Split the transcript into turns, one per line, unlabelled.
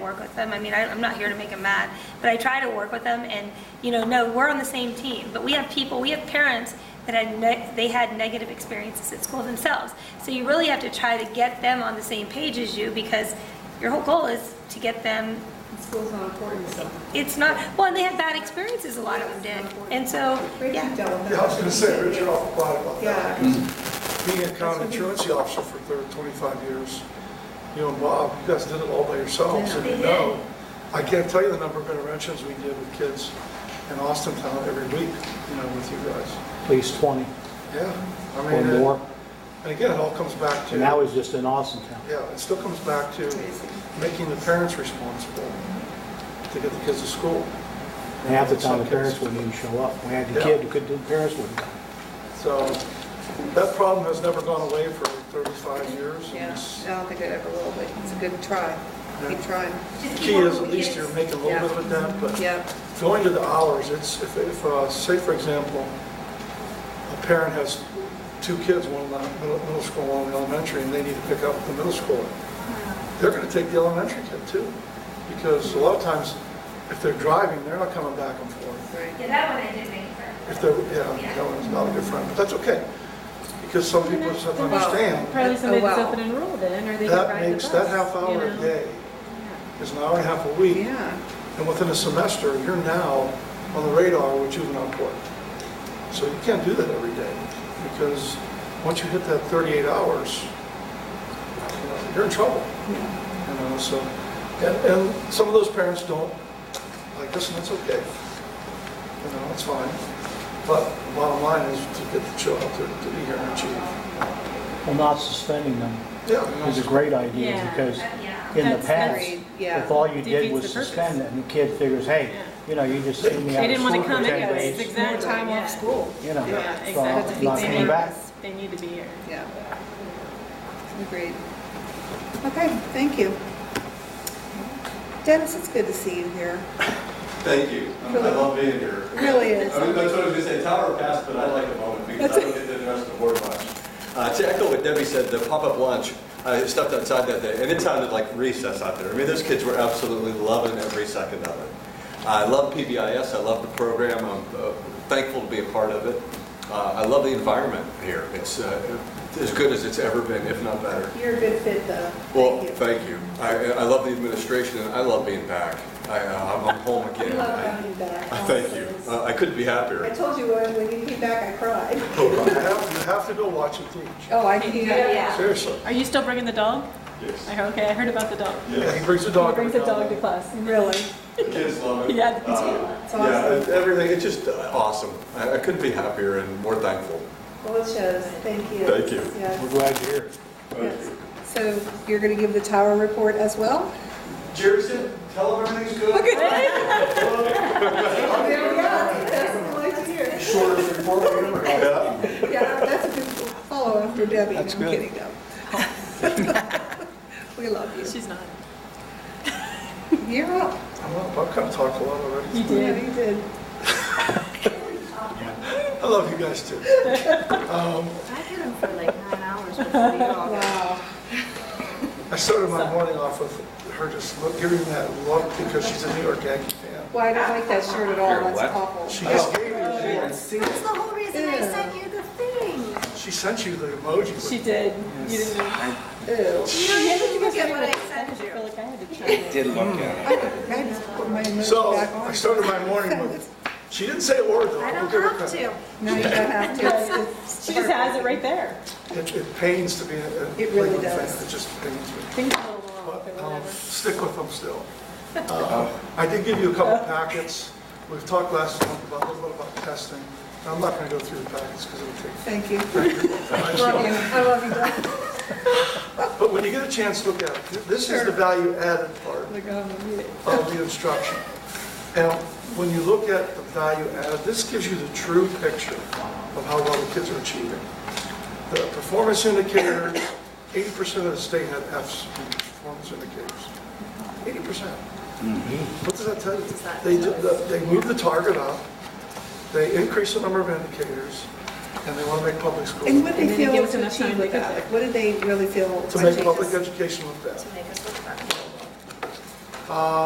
work with them. I mean, I, I'm not here to make them mad, but I try to work with them and, you know, no, we're on the same team. But we have people, we have parents that had, ne- they had negative experiences at school themselves. So you really have to try to get them on the same page as you because your whole goal is to get them,
School's not important, so.
it's not, well, and they had bad experiences, a lot of them did. And so,
Great
yeah.
you've dealt with that.
Yeah, I was gonna say, Richard, I'll quiet about
Yeah.
that. Being a county truancy officer for thir- 25 years, you and Bob, you guys did it all by yourselves, and you
They
know. I can't tell you the number of interventions we did with kids in Austin Town every week, you know, with you guys.
at least 20
Yeah, I
or
mean,
more.
and- and again, it all comes back to,
And that was just in Austin town.
yeah, it still comes back to making the parents responsible to get the kids to school.
And half the time, the parents wouldn't even show up. We had the
Yeah.
kid, who couldn't, the parents wouldn't come.
So that problem has never gone away for 35 years. and
Yeah,
it's-
I don't think it ever will, but it's a good try. Keep trying.
Key is at least you're making a little bit of a dent, but
Yeah,
going to the hours, it's, if, if, uh, say for example, a parent has two kids, one in the middle, middle school, one in elementary, and they need to pick up the middle schooler. They're gonna take the elementary kid too, because a lot of times, if they're driving, they're not coming back and forth.
right.
Yeah, that one I did make her.
If they're, yeah, that one's not a good friend, but that's okay, because some people just have to understand.
Probably somebody that's
wow.
up and enrolled in, or they can
Oh, That
ride the
makes,
bus.
that half
you
hour a
know?
day is an hour and a half a week.
Yeah,
And within a semester, you're now on the radar with juvenile court. So you can't do that every day, because once you hit that 38 hours, you know, you're in trouble. You know, so, and, and some of those parents don't like this, and that's okay. You know, it's fine. But the bottom line is to get the child to, to be here and achieve.
Well, not suspending them
Yeah.
is a great idea
Yeah.
because
Yeah.
in the
That's-
past,
Agreed, yeah.
if all you did
Defeats
was
the purpose.
suspend them, the kid figures, hey,
Yeah.
you know, you just sent me
They
out of
didn't want
school
to
for
come,
10
yeah, it's
more
days.
exact
time
time
off
off
school.
You know,
Yeah,
so
exactly.
not
They
coming
need-
back.
They need to be here.
yeah. Agreed. Okay, thank you. Dennis, it's good to see you here.
Thank you. I love being here.
Really is.
I mean, that's what I was gonna say, tower pass, but I like the moment because I don't get to the rest of the board much. Uh, to echo what Debbie said, the pop-up lunch, I stepped outside that day and it sounded like recess out there. I mean, those kids were absolutely loving every second of it. I love PBIS, I love the program, I'm uh, thankful to be a part of it. Uh, I love the environment here. It's, uh, as good as it's ever been, if not better.
You're a good fit, though.
Well,
Thank you.
thank you. I, I love the administration and I love being back. I, uh, I'm I'm home again.
We love having you back.
Thank you. Uh, I couldn't be
I
happier.
told you when, when you came back, I cried.
You have you have to go watch and teach,
Oh, I can,
Yeah.
seriously.
Are you still bringing the dog?
Yes.
I heard- Okay, I heard about the dog.
Yeah, He
Yes.
brings the
He
dog.
brings a dog to class.
really.
The Kids love it.
Yeah, they do.
Uh,
It's
Yeah,
awesome.
everything, it's just uh, awesome. I I couldn't be happier and more thankful.
Well, it shows. Thank you.
Thank you.
Yes.
We're glad you're here.
Yes. So you're going to give the tower report as well?
Jerry said, tell them everything's good.
Oh, There we go. That's what we like to hear.
Shortest report we ever had.
Yeah, that's a good follow after Debbie.
That's
I'm
good.
kidding, though. We love you.
She's not.
You're up.
Well, I've kind of talked a lot already.
You
Yeah,
did.
you did.
I love you guys too. Um,
I had them for like nine hours before you all got
Wow.
I started my morning off with her just look, giving me that look because she's a New York Yankee fan.
Well, I don't like that shirt at all.
You're
That's
what?
awful.
She
Oh.
just gave me,
That's the whole reason I sent you the thing.
she sent you the emoji. with-
She did. You didn't even.
Ew.
You don't even look at what I
I
sent you.
feel like I had to try it.
did look at it.
I just put my
So
emoji back
I
on.
started my morning with, she didn't say a word though.
I
I'll
don't
give her
have
credit.
to.
No, you don't have to. It's- it's
She just has it right there.
It it pains to be a a
It really
Lakeland fan.
does.
It just pains me.
Things a little off
But um,
or
I'll
whatever.
stick with them still. Uh, I did give you a couple packets. We've talked last month about, a little bit about testing. I'm not going to go through the packets because it'll take
Thank you. Love you. I love you, Doug.
But when you get a chance, look at it. This is the value added part
Like, I'm a mute.
of the instruction. And when you look at the value added, this gives you the true picture of how well the kids are achieving. The performance indicators, 80% of the state had Fs in performance indicators. 80%. What does that tell you? They, did the- they moved the target up, they increased the number of indicators, and they want to make public school,
And what
And
they
then it
feel
gives
was
enough time
achieved
to
with
get
that?
there.
Like, what did they really feel?
to
I
make
think
public
this-
education look better.
To make us look better.
Um,